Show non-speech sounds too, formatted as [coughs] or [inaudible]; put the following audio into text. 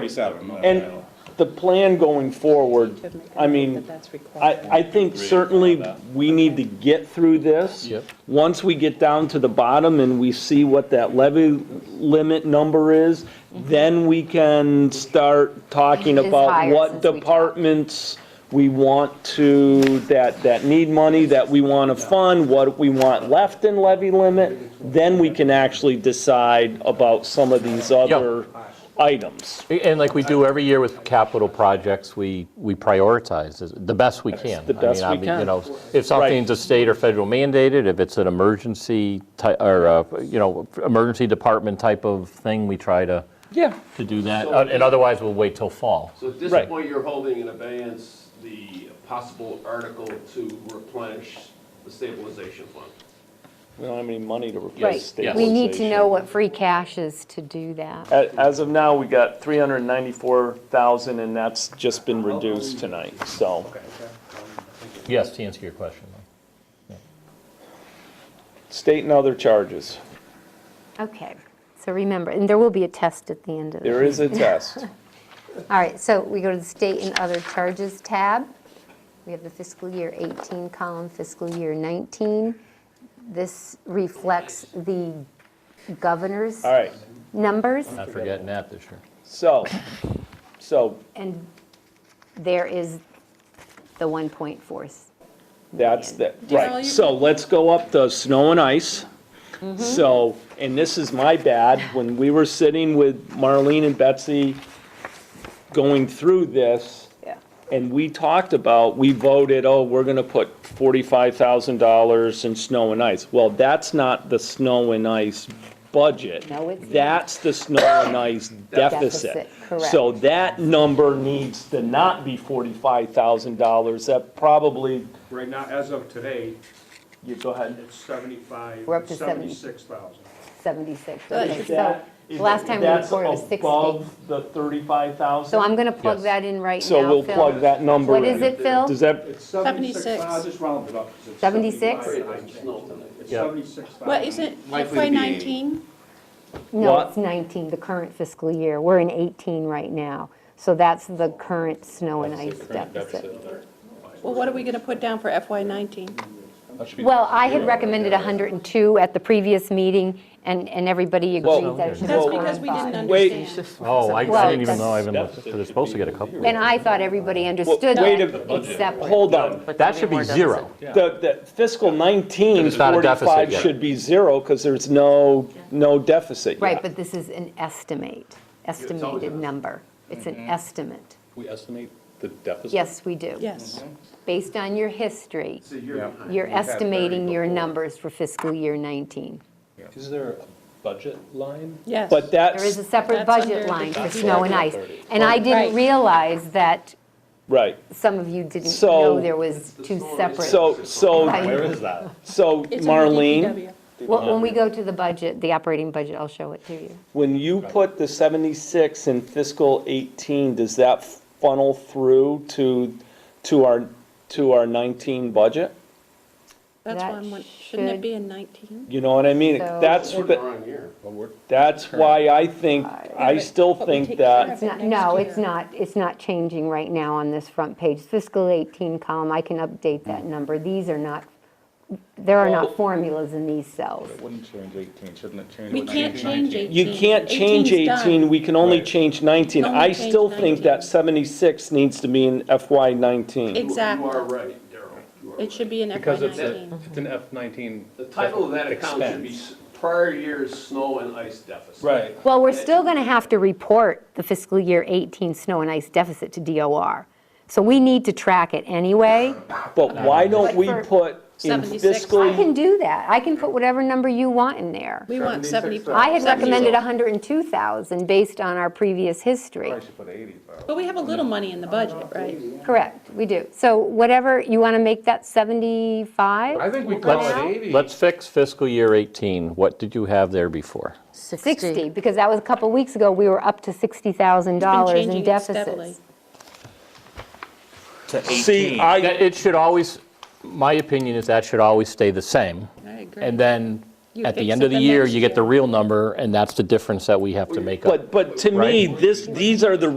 Forty-seven. And the plan going forward, I mean, I, I think certainly we need to get through this. Yep. Once we get down to the bottom and we see what that levy limit number is, then we can start talking It is about higher what since we talked. departments we want to, that, that need money, that we want to fund, what we want left in levy limit. Then we can actually decide about some of these other items. And like we do every year with capital projects, we, we prioritize as- the best we can. The I mean, best we I mean, can. You know, if something's a state or federal mandated, if it's an emergency, ty- or, uh, you know, emergency department type of thing, we try to, Yeah. to do that. Uh, And otherwise, we'll wait till fall. So at this Right. point, you're holding in abeyance the possible article to replenish the stabilization fund. We don't have any money to Right. replace We stabilization. need to know what free cash is to do that. A- As of now, we got 394,000, and that's just been reduced tonight, so. Yes, to answer your question. State and other charges, Okay, so remember, and there will be a test at the end of there it. [laughs] is a test. All right, so we go to the state and other charges tab. We have the fiscal year 18 column, fiscal year 19. This reflects the governor's All right, numbers. Not forgetting that this year. so, so And there is the 1.4. that's the, right. So let's go up to snow and ice. Mm-hmm. So, and this is my bad, when we were sitting with Marlene and Betsy going through this, Yeah. And we talked about, we voted, oh, we're gonna put forty-five thousand dollars in snow and ice. Well, that's not the snow and ice budget. No, it's not. That's the snow and ice deficit. [coughs] Deficit, correct. So that number needs to not be forty-five thousand dollars, that probably, Right now, as of today, you go ahead. it's seventy-five, We're up to 70. seventy-six thousand. 76. Okay, so That- the last time we that's reported was 60. above the thirty-five thousand. So I'm going to plug Yes. that in right now, Phil. So we'll plug that number in. What is it, Phil? Does that, It's seventy-six, I'll just round it up. 'cause it's 76? 75. It's snow tonight. It's Yeah. seventy-six thousand. What is it, Likely to FY be nineteen? No, What? it's 19, the current fiscal year. We're in 18 right now. So that's the current snow and ice deficit. Well, what are we gonna put down for FY nineteen? Well, I had recommended 102 at the previous meeting, and, and everybody agreed that it should be That's Well, because we didn't wait. understand. Oh, I Well, didn't even know I even that's- looked, they're supposed to get a couple. And I thought everybody understood wait a- that, except for- hold on. That should be zero. The, the fiscal 19, It's not a deficit 45 yet. should be zero because there's no, no deficit yet. Right, but this is an estimate, estimated number. It's an estimate. We estimate the deficit? Yes, we do. Yes. Based on your history, It's a year behind. you're had estimating thirty your before. numbers for fiscal year 19. Is there a budget line? Yes. But There is a that's, separate That's budget under line the for budget. snow and ice. And I Right. didn't realize that right. some of you didn't So- know there was the two story. separate. So, so, I- is that? so It's under E Marlene, DPW. Well, when we go to the budget, the operating budget, I'll show it to you. when you put the 76 in fiscal 18, does that funnel through to, to our, to our 19 budget? That's That one, one- shouldn't should- it be in nineteen? You know what I mean? So- That's, Sort the- of wrong year. that's why I think, I still But we think take that. care of It's it not, next no, it's year. not, it's not changing right now on this front page. Fiscal 18 column, I can update that number. These are not, there are not formulas in these cells. Wouldn't change 18, shouldn't it change? We with can't 19? change eighteen. You can't change 18's done. 18, we can only change 19. Only I change still think 19. that 76 needs to be in FY 19. Ex- Exactly. You are right, Daryl. You are It right. should be in FY Because it's, a- nineteen. it's an F-19. The title of that account should be expense. s- prior year's snow and ice deficit. Right. Well, we're still going to have to report the fiscal year 18 snow and ice deficit to DOR. So we need to track it anyway. But why don't But we for put in 76, I fiscal, can do that. I can put whatever number you want in there. We want seventy. I had recommended 70. 102,000 based on our previous history. Probably should put 80, though. But we have a little money in the budget, right? Correct, we do. So whatever, you want to make that 75? I think we call Let's, it 80. let's fix fiscal year 18. What did you have there before? 60, because that was a couple weeks ago, we were up to $60,000 in changing it steadily. deficits. see, I, That- It should always, my opinion is that should always stay the same. I agree. And then You at the fix end it of the the year, next you get the year. real number, and that's the difference that we have to make up. But, but to me, this, these are the